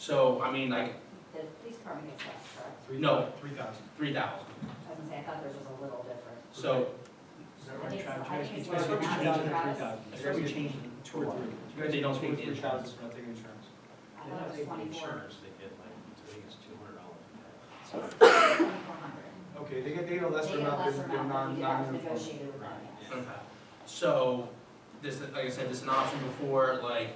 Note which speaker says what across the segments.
Speaker 1: So, I mean, like,
Speaker 2: The police department gets less, correct?
Speaker 3: Three-
Speaker 1: No.
Speaker 3: Three thousand.
Speaker 1: three thousand.
Speaker 2: I was gonna say, I thought theirs was a little different.
Speaker 1: So,
Speaker 4: Is that right,
Speaker 2: I think so.
Speaker 4: Travis?
Speaker 2: I think it's
Speaker 4: That's what we
Speaker 2: more
Speaker 4: changed
Speaker 2: than
Speaker 4: it to
Speaker 2: that.
Speaker 4: three thousand.
Speaker 1: I guess we changed it
Speaker 3: Two or three.
Speaker 1: You guys don't take the
Speaker 3: Two or three
Speaker 1: insurance.
Speaker 3: thousand for not taking insurance.
Speaker 2: I thought it was twenty-four,
Speaker 5: they get like, I think it's two hundred dollars.
Speaker 2: twenty-four hundred.
Speaker 3: Okay, they get, they get a
Speaker 2: They
Speaker 3: lesser
Speaker 2: get a
Speaker 3: amount,
Speaker 2: lesser
Speaker 3: they're they're
Speaker 2: amount, but
Speaker 3: non,
Speaker 2: you have
Speaker 3: non uniform.
Speaker 2: negotiated with them,
Speaker 5: Right,
Speaker 2: yes.
Speaker 5: yeah.
Speaker 1: okay. So, this, like I said, this is an option before, like,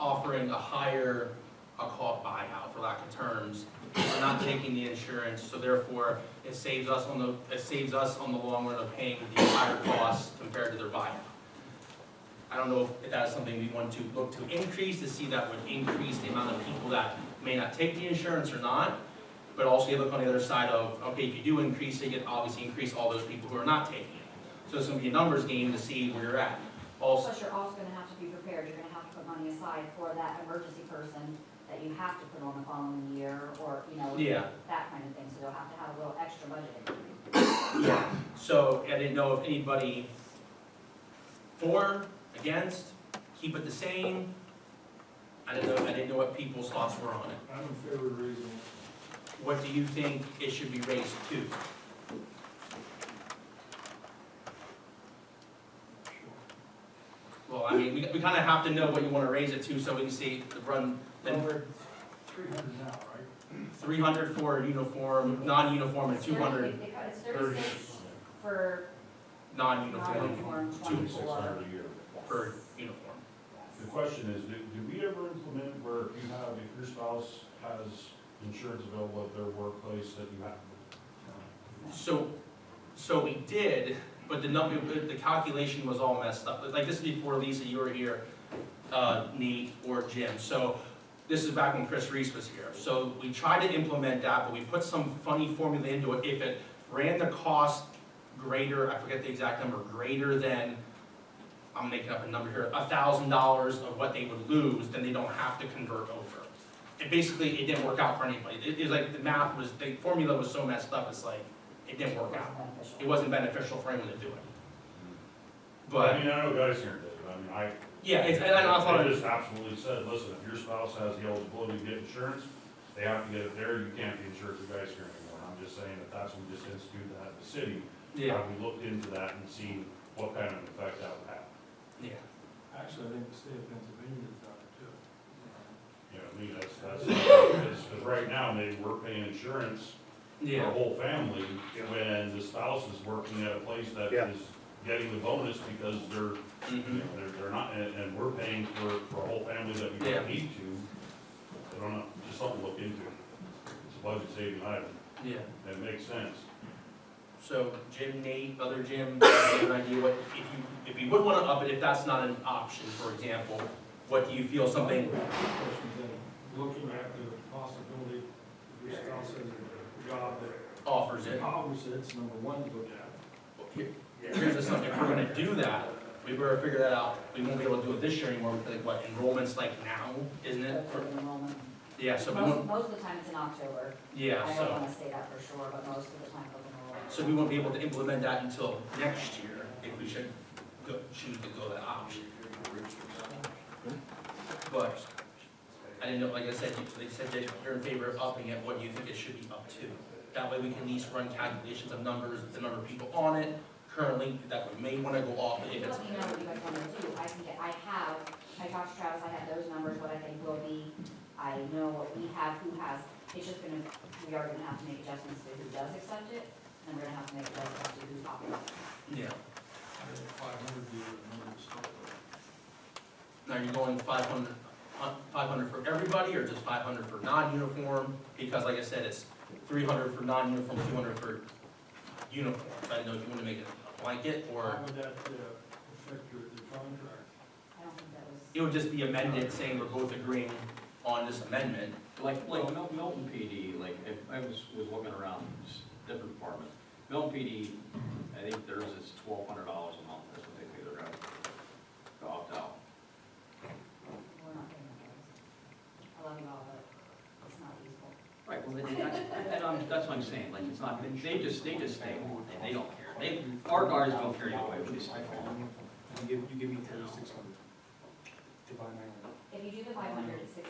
Speaker 1: offering a higher, I'll call it buyout for lack of terms, We're not taking the insurance, so therefore, it saves us on the, it saves us on the long run of paying the higher costs compared to their buyout. I don't know if that is something we want to look to increase, to see that would increase the amount of people that may not take the insurance or not, But also you look on the other side of, okay, if you do increase it, you obviously increase all those people who are not taking it. So it's gonna be a numbers game to see where you're at. Also,
Speaker 2: Plus, you're also gonna have to be prepared, you're gonna have to put money aside for that emergency person that you have to put on the following year, or, you know,
Speaker 1: yeah,
Speaker 2: that kind of thing, so you'll have to have a little extra budget.
Speaker 1: so I didn't know if anybody for, against, keep it the same. I didn't know, I didn't know what people's thoughts were on it.
Speaker 4: I'm in favor of raising it.
Speaker 1: What do you think it should be raised to? Well, I mean, we, we kinda have to know what you wanna raise it to so we can see the run, the
Speaker 4: Well, we're three hundred now, right?
Speaker 1: 300 for uniform, non-uniform, and 200
Speaker 2: They cut- It's thirty-six for
Speaker 1: non-uniform
Speaker 2: non-uniform,
Speaker 5: Twenty-six
Speaker 2: twenty-four.
Speaker 5: hundred a year.
Speaker 1: per uniform.
Speaker 2: Yes.
Speaker 5: The question is, did, did we ever implement where if you have, if your spouse has insurance available at their workplace that you have?
Speaker 1: So, so we did, but the number, the calculation was all messed up. Like, this is before Lisa, you were here, uh, Nate or Jim. So this is back when Chris Reese was here. So we tried to implement that, but we put some funny formula into it. If it ran the cost greater, I forget the exact number, greater than, I'm making up a number here, a thousand dollars of what they would lose, then they don't have to convert over. It basically, it didn't work out for anybody. It, it was like, the math was, the formula was so messed up, it's like, it didn't work out. It
Speaker 2: Beneficial.
Speaker 1: wasn't beneficial for anyone to do it.
Speaker 5: I
Speaker 1: But,
Speaker 5: mean, I know guys here did, but I mean, I.
Speaker 1: yeah, it's, and I thought,
Speaker 5: They
Speaker 1: it-
Speaker 5: just absolutely said, listen, if your spouse has the eligibility to get insurance, they have to get it there, you can't be insured for guys here anymore. I'm just saying that that's when we just institute that in the city.
Speaker 1: yeah,
Speaker 5: Have we looked into that and seen what kind of effect that would have?
Speaker 1: yeah.
Speaker 4: Actually, I think the state of Pennsylvania has done it too.
Speaker 5: You know, I mean, that's, that's, because, because right now, maybe we're paying insurance for the
Speaker 1: Yeah,
Speaker 5: whole family, when the spouse is working at a place that
Speaker 6: Yeah.
Speaker 5: is getting the bonus because they're, you
Speaker 1: mhm,
Speaker 5: know, they're, they're not, and, and we're paying for, for a whole family that we
Speaker 1: Yeah.
Speaker 5: don't need to. I don't know, just something to look into. It's a budget saving item,
Speaker 1: yeah.
Speaker 5: that makes sense.
Speaker 1: So Jim, Nate, other Jim, do you have an idea what, if you, if you would wanna up it, if that's not an option, for example, what do you feel
Speaker 3: Oh,
Speaker 1: something,
Speaker 4: Question then, looking at the possibility, if your spouse has a job that
Speaker 1: offers it?
Speaker 4: powers it, it's number one to look at.
Speaker 1: Here- Here's the something, if we're gonna do that, we better figure that out, we won't be able to do it this year anymore, because like, what, enrollment's like now, isn't it?
Speaker 2: Open enrollment.
Speaker 1: Yeah, so we
Speaker 2: Most,
Speaker 1: won't,
Speaker 2: most of the time it's in October.
Speaker 1: yeah,
Speaker 2: I don't
Speaker 1: so,
Speaker 2: wanna say that for sure, but most of the time open enrollment.
Speaker 1: so we won't be able to implement that until next year, if we should go, choose to go that option. But, I didn't know, like I said, you, they said that you're in favor of upping it, what do you think it should be up to? That way we can at least run calculations of numbers, the number of people on it, currently, that we may wanna go off, if it's,
Speaker 2: Let me know what you guys wanna do, I can get, I have, I talked to Travis, I have those numbers, what I think will be, I know what we have, who has, it's just gonna, we are gonna have to make adjustments to who does accept it, and we're gonna have to make adjustments to who's opting out.
Speaker 1: yeah.
Speaker 4: Five hundred year, another story.
Speaker 1: Now, you're going five hundred, uh, five hundred for everybody, or just five hundred for non-uniform? Because like I said, it's three hundred for non-uniform, two hundred for uniform. I didn't know if you wanted to make it a blanket, or
Speaker 4: How would that uh, affect your, the contract?
Speaker 2: I don't think that was.
Speaker 1: it would just be amended, saying we're both agreeing on this amendment.
Speaker 7: Like, like Mel- Milton PD, like, I- I was, was looking around, s- different departments. Milton PD, I think theirs is twelve hundred dollars a month, that's what they pay their guys to opt out.
Speaker 2: We're not paying the bills. I love you all, but it's not useful.
Speaker 7: Right, well, then, that's, and I'm- that's what I'm saying, like, it's not, they just, they just stay, on, they- they don't care. They, our guards don't care either way, what they say.
Speaker 3: You give, you give me thirty-six hundred to buy my own.
Speaker 2: If you do the five hundred, it's six